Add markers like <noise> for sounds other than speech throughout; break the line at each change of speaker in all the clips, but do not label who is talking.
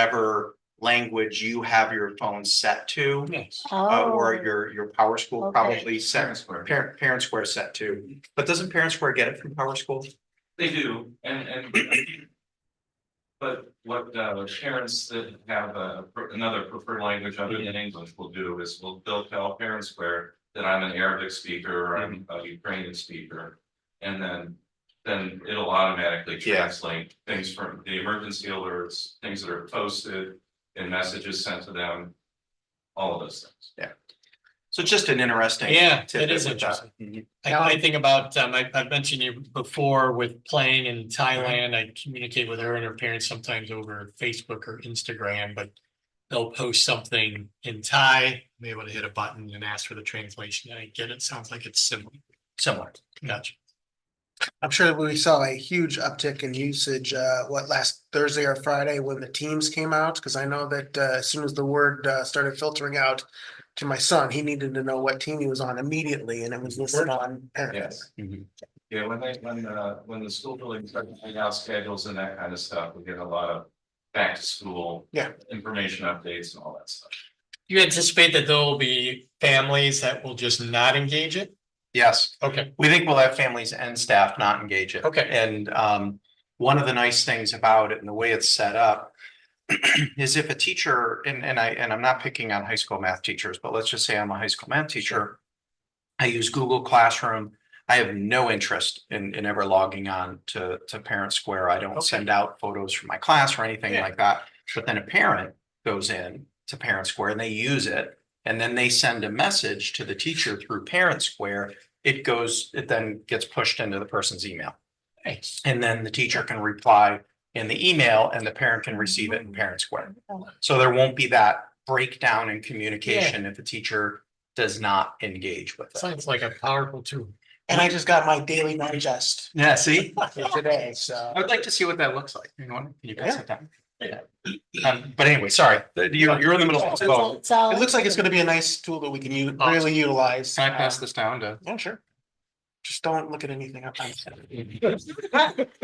whatever language you have your phone set to.
Yes.
uh,
Oh,
or your, your Power School
Okay.
probably set,
Square.
parent, parent square set to, but doesn't parent square get it from Power School?
They do, and, and. But what, uh, parents that have a, another preferred language other than English will do is will, they'll tell parents where. That I'm an Arabic speaker or I'm a Ukrainian speaker, and then, then it'll automatically
Yeah.
translate things from the emergency alerts, things that are posted. And messages sent to them, all of those things.
So just an interesting.
Yeah, it
tidbit
is
with that.
interesting.
Mhm.
I, I think about, um, I, I've mentioned you before with playing in Thailand, I communicate with her and her parents sometimes over Facebook or Instagram, but. They'll post something in Thai, I'm able to hit a button and ask for the translation, and I get it, sounds like it's similar, similar, gotcha.
I'm sure we saw a huge uptick in usage, uh, what, last Thursday or Friday when the teams came out? Cause I know that, uh, as soon as the word, uh, started filtering out to my son, he needed to know what team he was on immediately and it was listed on. parents.
Yes. Yeah, when they, when, uh, when the school building starts putting out schedules and that kind of stuff, we get a lot of back to school.
Yeah.
Information updates and all that stuff.
You anticipate that there will be families that will just not engage it?
Yes,
Okay,
we think we'll have families and staff not engage it.
Okay.
And, um, one of the nice things about it and the way it's set up <clears throat> is if a teacher, and, and I, and I'm not picking on high school math teachers, but let's just say I'm a high school math teacher. I use Google Classroom. I have no interest in, in ever logging on to, to Parent Square. I don't
Okay.
send out photos from my class or anything
Yeah.
like that. But then a parent goes in to Parent Square and they use it. And then they send a message to the teacher through Parent Square. It goes, it then gets pushed into the person's email.
thanks.
And then the teacher can reply in the email and the parent can receive it in parent square. So there won't be that breakdown in communication if the teacher does not engage with it.
Sounds like a powerful tool.
And I just got my daily digest
Yeah, see,
for today, so.
I would like to see what that looks like. You know, can you pass it down? Um, but anyway, sorry, you're, you're in the middle of this vote.
It's all.
It looks like it's gonna be a nice tool that we can u- really utilize. Uh,
Can I pass this down to?
Yeah, sure. Just don't look at anything up. on it.
I was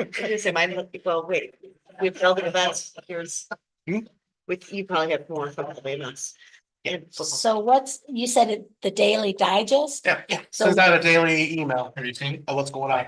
gonna say, mine look- well, wait, with building events, here's.
Hmm?
With, you probably have more probably than us. And
So what's, you said it, the Daily Digest?
Yeah.
So
So
is that a daily email
Have you seen?
of what's going on?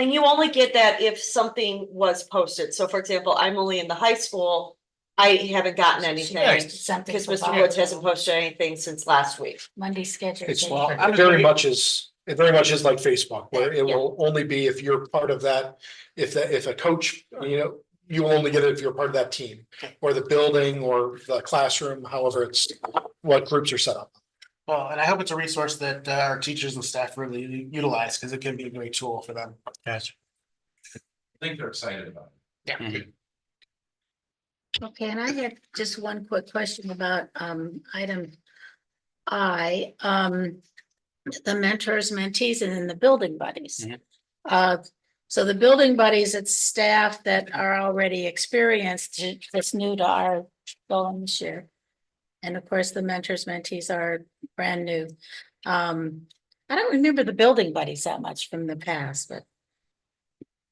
and you only get that if something was posted. So for example, I'm only in the high school. I haven't gotten anything
something.
because
for
Mr.
Bob.
Woods hasn't posted anything since last week.
Monday schedule.
It's
daily.
well,
I'm
it
just
very
gonna-
much is, it very much is like Facebook, where it will only be if you're part of that. If that, if a coach, you know, you will only get it if you're part of that team or the building or the classroom, however it's, what groups are set up.
Well, and I hope it's a resource that uh, our teachers and staff really u- utilize because it can be a great tool for them.
Gotcha.
I think they're excited about it.
Okay, and I had just one quick question about um item I, um the mentors, mentees, and then the building buddies.
Mhm.
Uh, so the building buddies, it's staff that are already experienced, ju- that's new to our going this year. And of course, the mentors, mentees are brand new. Um, I don't remember the building buddies that much from the past, but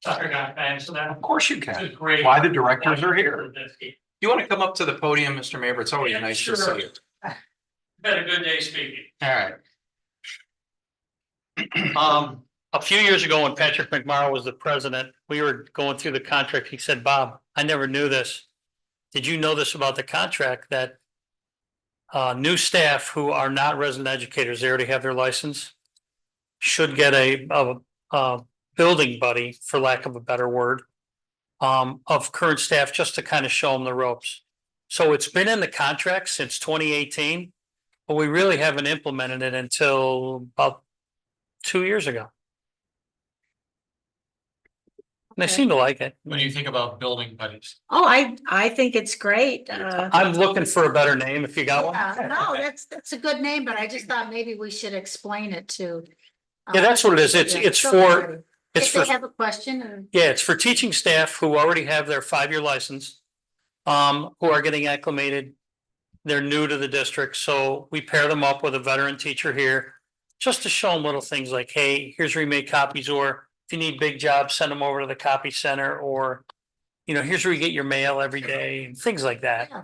Sorry, not thanks for that.
Of course you
This
can.
is great.
Why the directors are here.
It's
You want to come up to the podium, Mr. Mayor? It's always nice to see you.
Been a good day speaking.
All right.
Um, a few years ago, when Patrick McMorrow was the president, we were going through the contract. He said, Bob, I never knew this. Did you know this about the contract that uh, new staff who are not resident educators, they already have their license, should get a, a, a building buddy, for lack of a better word, um, of current staff, just to kind of show them the ropes. So it's been in the contract since twenty eighteen, but we really haven't implemented it until about two years ago. And they
Okay.
seem to like it.
What do you think about building buddies?
oh, I I think it's great. Uh.
I'm looking for a better name if you got one.
Yeah, Uh, no,
Yeah,
that's, that's a good name, but I just thought maybe we should explain it to. Uh,
that's what it is. It's, it's for, it's
If
for,
they have a question or.
yeah, it's for teaching staff who already have their five-year license, um, who are getting acclimated. They're new to the district, so we pair them up with a veteran teacher here, just to show them little things like, hey, here's remade copies, or if you need big jobs, send them over to the copy center, or you know, here's where you get your mail every day and things like that.
Yeah.